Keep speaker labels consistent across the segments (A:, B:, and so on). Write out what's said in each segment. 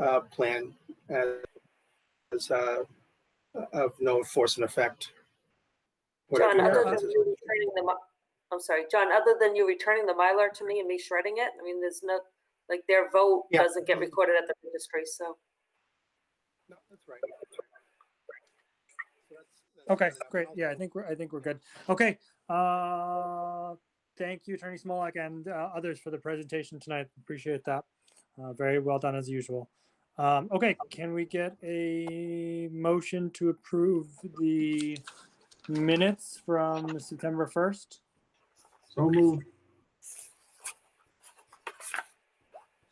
A: uh, plan as, as, uh, of no enforcement effect. Whatever
B: John, other
A: happens
B: than
A: is-
B: you returning the, mi- I'm sorry, John, other than you returning the Mylar to me and me shredding it, I mean, there's no, like, their vote
A: Yeah.
B: doesn't get recorded at the registry, so.
A: No, that's right. So that's- that's-
C: Okay,
A: that's-
C: great. Yeah, I think we're, I think we're good. Okay. Uh, thank you, Attorney Smolak and uh, others for the presentation tonight. Appreciate that. Uh, very well done as usual. Um, okay, can we get a motion to approve the minutes from September 1st?
D: So moved.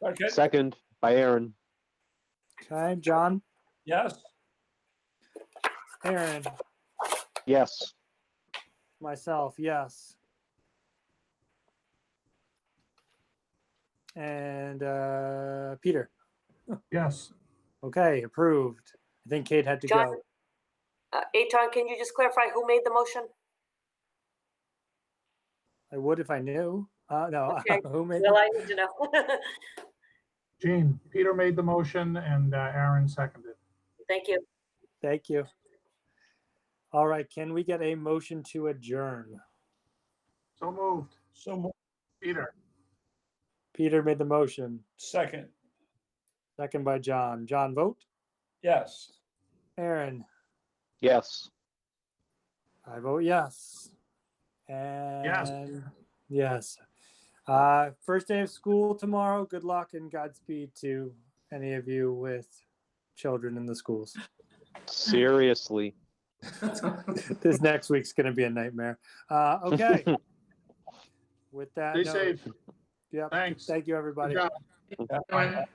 E: Second,
F: Second by Aaron.
C: Okay, John,
E: yes,
C: Aaron,
F: Yes.
C: myself, yes. And uh, Peter,
D: Yes.
C: okay, approved. I think Kate had to
B: John,
C: go.
B: uh, Aton, can you just clarify who made the motion?
C: I would if I knew. Uh, no,
B: Okay.
C: who made?
B: Well, I need to know.
D: Gene, Peter made the motion and uh, Aaron seconded.
B: Thank you.
C: Thank you. All right, can we get a motion to adjourn?
D: So moved.
E: so mo-
D: Peter,
C: Peter made the motion,
E: second,
C: second by John. John, vote.
E: yes.
C: Aaron,
F: Yes.
C: I vote yes. And yes. Uh, first day of school tomorrow. Good luck and Godspeed to any of you with children in the schools.
F: Seriously.
C: this next week's going to be a nightmare. Uh, okay. With that,
D: stay
C: note-
D: safe.
C: Yep.
D: Thanks.
C: Thank you,
D: Good
C: everybody.
D: job.
E: Bye.